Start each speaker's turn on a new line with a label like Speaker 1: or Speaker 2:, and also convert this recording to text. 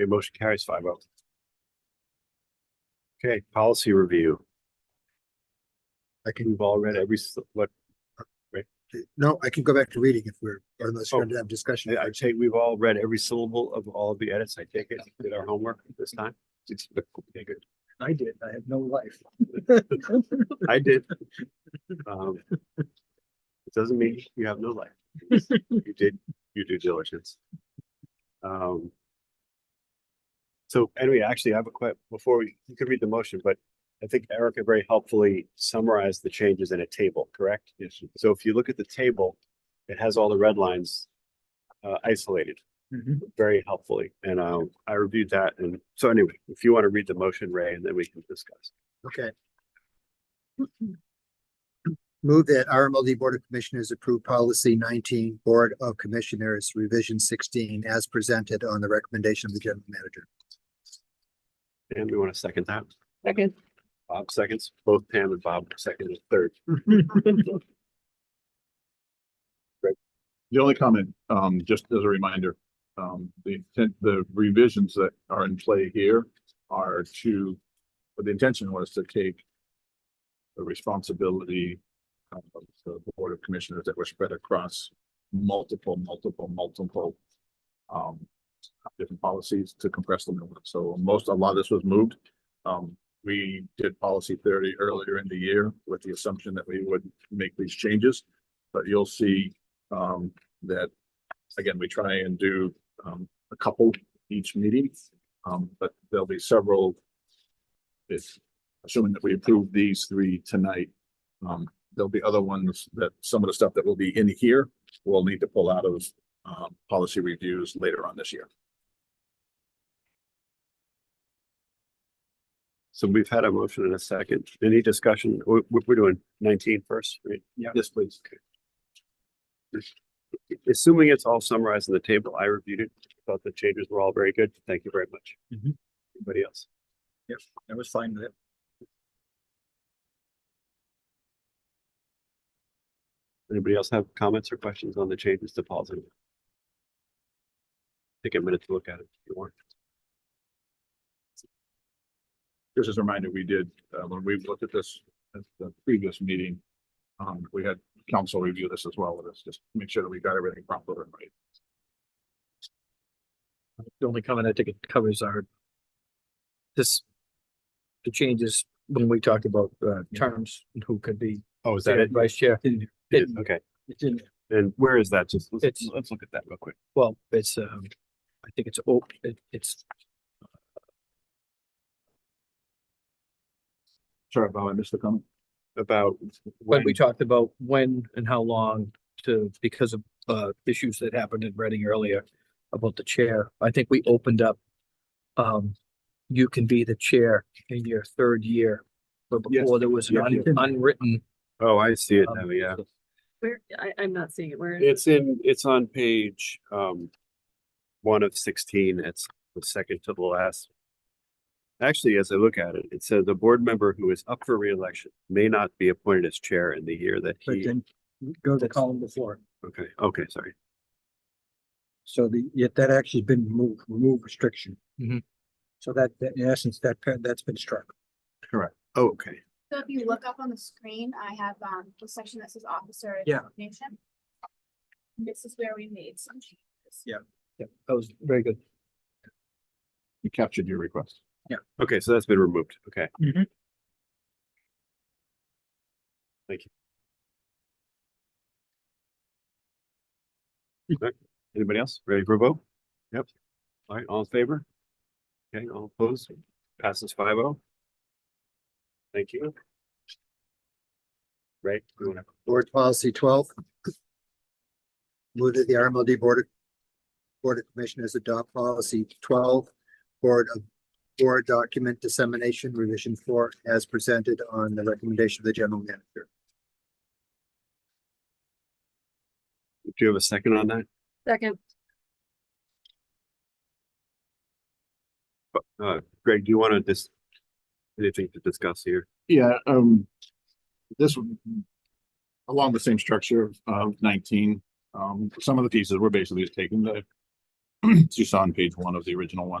Speaker 1: Okay, motion carries five oh. Okay, policy review. I think we've all read every, s- what,
Speaker 2: No, I can go back to reading if we're, or unless you're
Speaker 1: Oh.
Speaker 2: gonna have discussion.
Speaker 1: I- I'd say we've all read every syllable of all of the edits. I take it, did our homework this time. Okay, good.
Speaker 2: I did. I have no life.
Speaker 1: I did. Um, It doesn't mean you have no life. You did your due diligence. Um. So anyway, actually, I have a que- before we, you could read the motion, but I think Erica very helpfully summarized the changes in a table, correct? Yes. So if you look at the table, it has all the red lines uh isolated very helpfully. And um, I reviewed that. And so anyway, if you want to read the motion, Ray, and then we can discuss.
Speaker 2: Okay. Move that RMLD Board of Commissioners approve policy nineteen, Board of Commissioners revision sixteen as presented on the recommendation of the general manager.
Speaker 1: And we want to second that.
Speaker 3: Second.
Speaker 1: Bob seconds, both Pam and Bob second and third.
Speaker 4: The only comment, um, just as a reminder, um, the intent, the revisions that are in play here are to, but the intention was to take the responsibility of the Board of Commissioners that were spread across multiple, multiple, multiple um, different policies to compress them. into one. So most, a lot of this was moved. Um, we did policy thirty earlier in the year with the assumption that we would make these changes. But you'll see, um, that, again, we try and do, um, a couple each meeting. Um, but there'll be several. If, assuming that we approve these three tonight, um, there'll be other ones that, some of the stuff that will be in here, we'll need to pull out of, um, policy reviews later on this year.
Speaker 1: So we've had a motion and a second. Any discussion? We're, we're doing 19 first, right? Yeah.
Speaker 4: Yes, please.
Speaker 1: Assuming it's all summarized in the table, I reviewed it, thought the changes were all very good. Thank you very much.
Speaker 4: Mhm.
Speaker 1: Anybody else?
Speaker 4: I was fine with it.
Speaker 1: Anybody else have comments or questions on the changes to policy? Take a minute to look at it if you want.
Speaker 4: Just as a reminder, we did, uh, when we looked at this at the previous meeting, um, we had council review this as well with us, just to make sure that we got everything proper and right.
Speaker 5: The only comment I think it covers are this, the changes when we talked about uh terms and who could be
Speaker 1: Oh, is
Speaker 5: chair, vice chair. It-
Speaker 1: Okay,
Speaker 5: it's in-
Speaker 1: and where is that? Just, let's,
Speaker 5: It's-
Speaker 1: let's look at that real quick.
Speaker 5: Well, it's um, I think it's, oh, it it's,
Speaker 4: Sorry, Bob, I missed the comment.
Speaker 1: About.
Speaker 5: when we talked about when and how long to, because of uh issues that happened in Reading earlier about the chair, I think we opened up um, you can be the chair in your third year. But
Speaker 4: Yes.
Speaker 5: before there was an
Speaker 4: Yeah.
Speaker 5: un- unwritten
Speaker 1: Oh, I see it
Speaker 5: Um,
Speaker 1: now, yeah.
Speaker 3: Where, I, I'm not seeing it. Where is it?
Speaker 1: It's in, it's on page, um, one of sixteen, it's the second to the last. Actually, as I look at it, it says the board member who is up for reelection may not be appointed as chair in the year that
Speaker 5: but
Speaker 1: he,
Speaker 5: then go to the column before.
Speaker 1: okay, okay, sorry.
Speaker 6: So the, yet that actually has been removed, remove restriction.
Speaker 5: Mhm.
Speaker 6: So that, that in essence, that, pa- that's been struck.
Speaker 1: Oh, Okay,
Speaker 7: So if you look up on the screen, I have um the section that says officer.
Speaker 6: Yeah.
Speaker 7: Nation. This is where we made some changes.
Speaker 5: Yeah, that was very good.
Speaker 4: You captured your request.
Speaker 1: okay, so that's been removed, okay.
Speaker 5: Mhm.
Speaker 1: Thank you. Okay, Anybody else ready for a vote? Yep. All right, all in favor? Okay, all opposed, passes five oh. Thank you. Right, we wanna-
Speaker 2: Board policy twelve. Move that the RMLD Board of Board of Commissioners adopt policy twelve, Board of Board Document Dissemination Revision Four as presented on the recommendation of the general manager.
Speaker 1: do you have a second on that?
Speaker 3: Second.
Speaker 1: Uh, Greg, do you want to just, anything to discuss here?
Speaker 4: Yeah, um, this one, along the same structure of- of nineteen, um, some of the pieces were basically just taken that you saw on page one of the original one.